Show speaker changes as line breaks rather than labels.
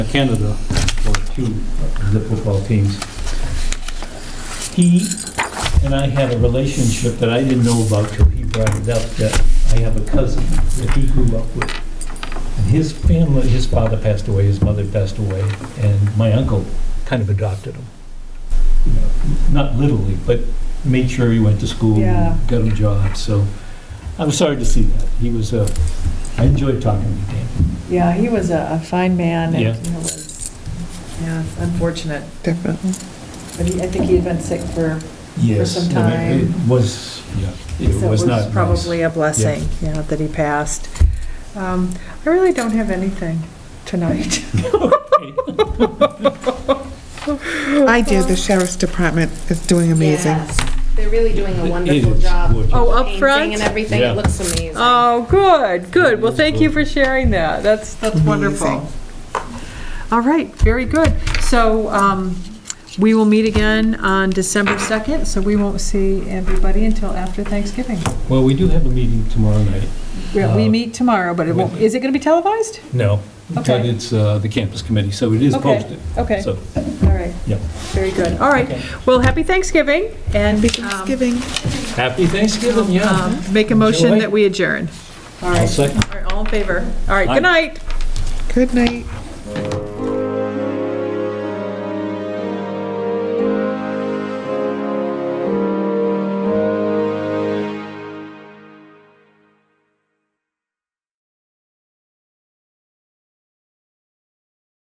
Canada for two of the football teams. He and I had a relationship that I didn't know about till he brought it up, that I have a cousin that he grew up with. And his family, his father passed away, his mother passed away, and my uncle kind of adopted him. You know, Not literally, but made sure he went to school,
Yeah.
got a job, so I'm sorry to see that. He was a, I enjoyed talking to Dan.
Yeah, he was a a fine man,
Yeah.
and he was, yeah, it's unfortunate,
Definitely.
but he, I think he had been sick for,
Yes.
some
I mean, It
time.
was, yeah, it
so
was
it
not
was
nice.
probably a blessing, yeah, that he passed. Um, I really don't have anything tonight.
I do, the sheriff's department is doing amazing.
Yes, They're really doing
It
a wonderful
is
job.
gorgeous.
Oh, up
Painting
front?
And everything,
Yeah.
it looks amazing.
Oh, good, good. Well, thank you for sharing that. That's, that's wonderful. All right, very good. So um, we will meet again on December 2nd, so we won't see everybody until after Thanksgiving.
Well, we do have a meeting tomorrow night.
We- We
Uh,
meet tomorrow, but it won't, is it going to be televised?
No, but
Okay.
it's uh, the campus committee, so it is
Okay,
posted.
Okay,
So,
all right.
Yeah.
Very good. All right.
Okay.
Well, happy Thanksgiving and um,
Giving.
happy Thanksgiving, yeah.
um, make a motion
Enjoy.
that we adjourn. All
I'll
right,
second.
All right, all in favor. All right,
Aye.
good night.
Good night.